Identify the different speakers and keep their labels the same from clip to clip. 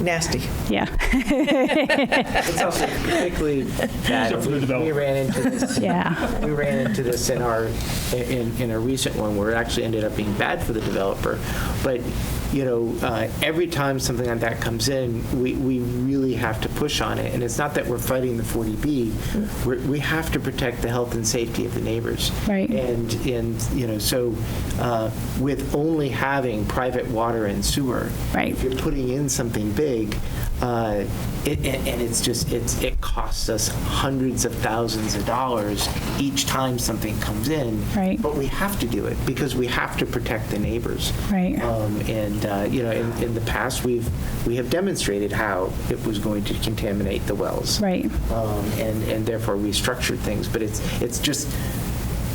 Speaker 1: nasty.
Speaker 2: Yeah,
Speaker 3: It's also particularly bad.
Speaker 4: for the
Speaker 3: We
Speaker 4: developer.
Speaker 3: ran into this,
Speaker 2: yeah,
Speaker 3: we ran into this in our, in, in a recent one where it actually ended up being bad for the developer. But, you know, uh, every time something like that comes in, we, we really have to push on it. And it's not that we're fighting the 40B, we're, we have to protect the health and safety of the neighbors.
Speaker 2: Mm-hmm. Right.
Speaker 3: And, and, you know, so uh, with only having private water and sewer.
Speaker 2: Right.
Speaker 3: If you're putting in something big, uh, it- and and it's just, it's, it costs us hundreds of thousands of dollars each time something comes in.
Speaker 2: Right.
Speaker 3: But we have to do it because we have to protect the neighbors.
Speaker 2: Right.
Speaker 3: Um, And, uh, you know, in, in the past, we've, we have demonstrated how it was going to contaminate the wells
Speaker 2: right.
Speaker 3: um, and, and therefore restructured things. But it's, it's just,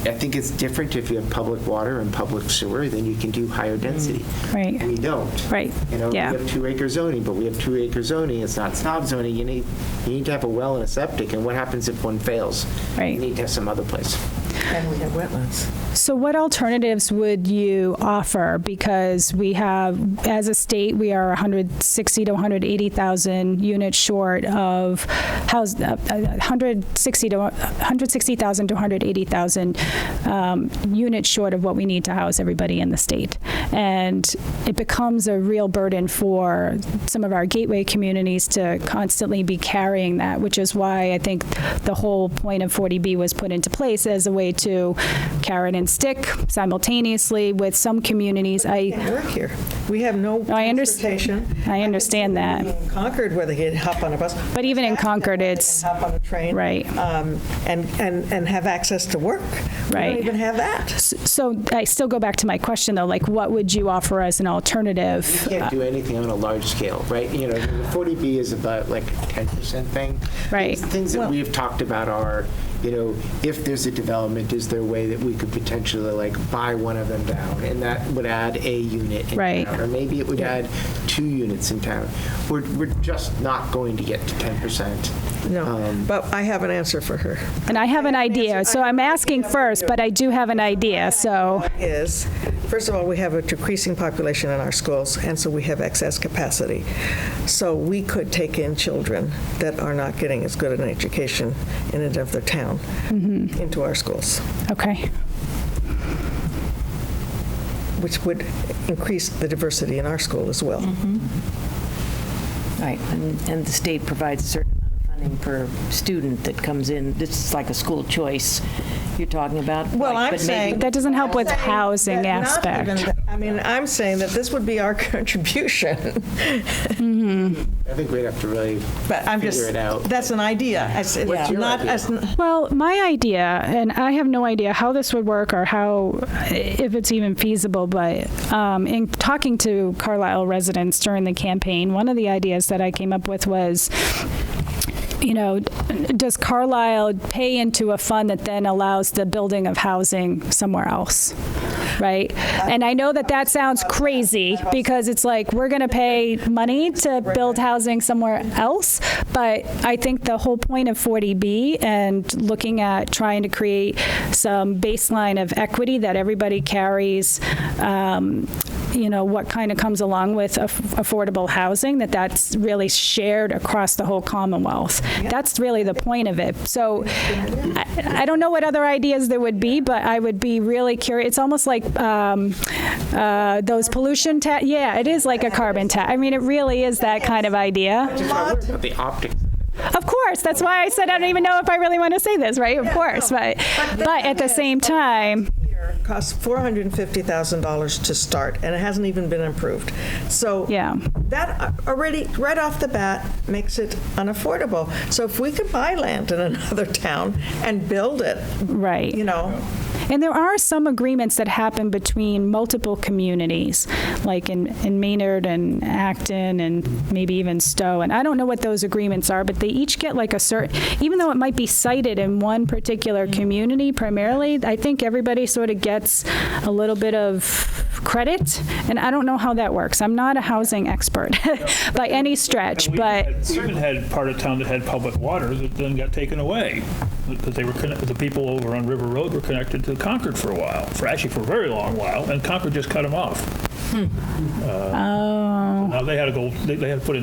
Speaker 3: I think it's different if you have public water and public sewer, then you can do higher density.
Speaker 2: Mm-hmm. Right.
Speaker 3: We don't.
Speaker 2: Right.
Speaker 3: You know, we
Speaker 2: Yeah.
Speaker 3: have two-acre zoning, but we have two-acre zoning, it's not snob zoning, you need, you need to have a well and a septic, and what happens if one fails?
Speaker 2: Right.
Speaker 3: You need to have some other place.
Speaker 1: And we have wetlands.
Speaker 2: So what alternatives would you offer? Because we have, as a state, we are 160 to 180,000 units short of house, uh, uh, 160 to, 160,000 to 180,000 um, units short of what we need to house everybody in the state. And it becomes a real burden for some of our gateway communities to constantly be carrying that, which is why I think the whole point of 40B was put into place as a way to carrot and stick simultaneously with some communities. I,
Speaker 1: Can't work here. We have no
Speaker 2: I under-
Speaker 1: transportation.
Speaker 2: I
Speaker 1: can see
Speaker 2: understand that.
Speaker 1: people in Concord, where they can hop on a bus.
Speaker 2: But even in Concord, it's-
Speaker 1: They can Hop on a train.
Speaker 2: Right.
Speaker 1: um, And, and, and have access to work. We
Speaker 2: Right.
Speaker 1: don't even have that.
Speaker 2: so I still go back to my question though, like what would you offer as an alternative?
Speaker 3: You can't do anything on a large scale, right? You know, the 40B is about like a 10% thing.
Speaker 2: Right.
Speaker 3: Things- Things that
Speaker 1: Well-
Speaker 3: we've talked about are, you know, if there's a development, is there a way that we could potentially like buy one of them down? And that would add a unit in
Speaker 2: Right.
Speaker 3: town. Or maybe it would add two units in town. We're, we're just not going to get to Um, 10%.
Speaker 1: No, but I have an answer for her.
Speaker 2: And I have an idea, so I'm asking first, but I do have an idea, so,
Speaker 1: is, first of all, we have a decreasing population in our schools, and so we have excess capacity. So we could take in children that are not getting as good an education in another town
Speaker 2: Mm-hmm.
Speaker 1: into our schools,
Speaker 2: okay,
Speaker 1: which would increase the diversity in our school as well.
Speaker 2: Mm-hmm.
Speaker 5: Right, and, and the state provides a certain amount of funding per student that comes in. This is like a school choice you're talking about.
Speaker 1: Well, I'm
Speaker 5: like, but maybe-
Speaker 1: saying-
Speaker 2: that doesn't help with
Speaker 1: saying
Speaker 2: housing
Speaker 1: that not
Speaker 2: aspect.
Speaker 1: even that- I mean, I'm saying that this would be our contribution,
Speaker 3: I think we'd have to really
Speaker 1: but I'm just,
Speaker 3: figure it out.
Speaker 1: that's an idea. It's it's
Speaker 3: your
Speaker 1: not,
Speaker 3: idea?
Speaker 1: it's n-
Speaker 2: Well, my idea, and I have no idea how this would work or how, if it's even feasible, but um, in talking to Carlisle residents during the campaign, one of the ideas that I came up with was you know, does Carlisle pay into a fund that then allows the building of housing somewhere else? Right? And I know that that sounds crazy because it's like, we're going to pay money to build housing somewhere else. But I think the whole point of 40B and looking at trying to create some baseline of equity that everybody carries, um, you know, what kind of comes along with aff- affordable housing, that that's really shared across the whole Commonwealth. That's really the point of it. So I, I don't know what other ideas there would be, but I would be really curious. It's almost like um, uh, those pollution ta, yeah, it is like a carbon tax. I mean, it really is that kind of idea.
Speaker 3: About the optics.
Speaker 2: Of course, that's why I said I don't even know if I really want to say this, right? Of course, but, but at the same time,
Speaker 1: year costs $450,000 to start, and it hasn't even been improved. So
Speaker 2: Yeah.
Speaker 1: that uh, already, right off the bat, makes it unaffordable. So if we could buy land in another town and build it,
Speaker 2: right.
Speaker 1: you know,
Speaker 2: And there are some agreements that happen between multiple communities, like in, in Maynard and Acton and maybe even Stowe. And I don't know what those agreements are, but they each get like a certain, even though it might be cited in one particular
Speaker 4: Mm.
Speaker 2: community primarily, I think everybody sort of gets a little bit of credit. And I don't know how that works. I'm not a housing expert by any stretch,
Speaker 4: We
Speaker 2: but,
Speaker 4: had- We even had part of town that had public water that then got taken away, because they were, connect- the people over on River Road were connected to Concord for a while, for, actually for a very long while, and Concord just cut them off. Uh, Now, they had to go, they they had to put in